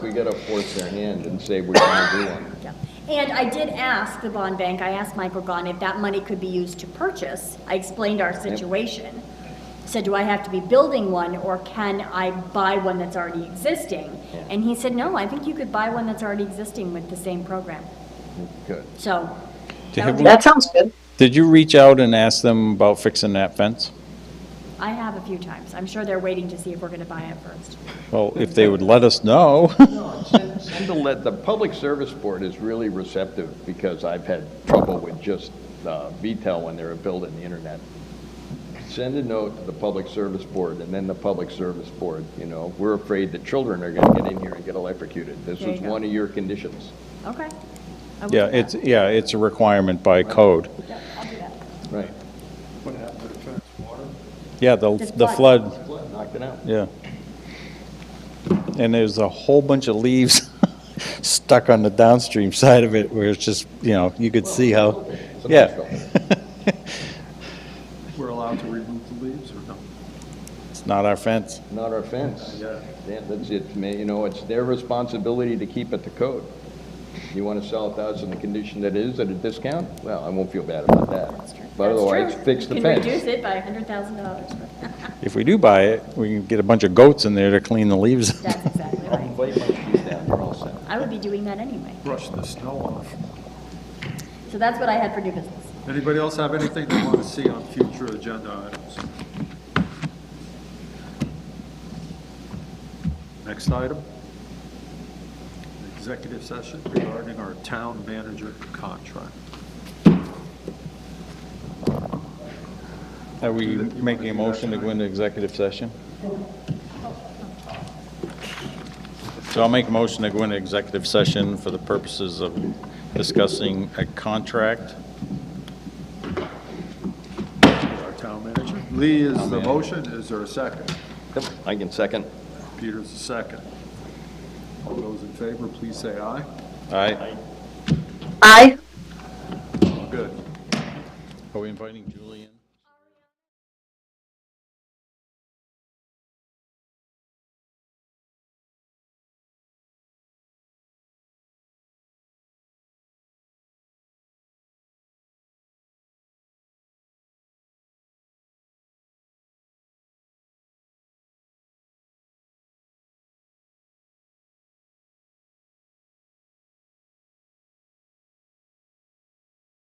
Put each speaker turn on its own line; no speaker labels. We gotta force their hand and say we're gonna do one.
Yeah. And I did ask the bond bank, I asked Michael Gahn if that money could be used to purchase. I explained our situation. Said, do I have to be building one or can I buy one that's already existing?
Yeah.
And he said, no, I think you could buy one that's already existing with the same program.
Good.
So.
Did
that would
you-
be-
That sounds good.
Did you reach out and ask them about fixing that fence?
I have a few times. I'm sure they're waiting to see if we're going to buy it first.
Well, if they would let us know.
And to let, the Public Service Board is really receptive because I've had trouble with just uh, VTEL when they were building the internet. Send a note to the Public Service Board and then the Public Service Board, you know, we're afraid the children are gonna get in here and get electrocuted. This
There
was
you go.
one of your conditions,
Okay. I will
Yeah,
do that.
it's, yeah, it's a requirement by code.
Yeah, I'll do that.
right?
Yeah, the,
The
the
flood.
flood,
Knocked it out.
yeah. And there's a whole bunch of leaves stuck on the downstream side of it where it's just, you know, you could see how, yeah.
We're allowed to remove the leaves or no?
It's not our fence.
Not our fence.
Yeah.
Yeah, that's it, man, you know, it's their responsibility to keep it to code. You want to sell a thousand, the condition that is at a discount? Well, I won't feel bad about that.
That's true.
But
That's
otherwise,
true.
fix the
You
fence.
Can reduce it by $100,000.
If we do buy it, we can get a bunch of goats in there to clean the leaves.
That's exactly
I'll
right.
invite my chief down, we're all set.
I would be doing that anyway.
Brush the snow off.
So that's what I had for new business.
Anybody else have anything they want to see on future agenda items? Next item. Executive session regarding our town manager contract.
Are we making a motion to go into executive session? So I'll make a motion to go into executive session for the purposes of discussing a contract.
Our town manager. Lee is the motion. Is there a second?
Yep, I can second.
Peter's the second. All those in favor, please say aye.
Aye.
Aye.
Good.
Are we inviting Julie in?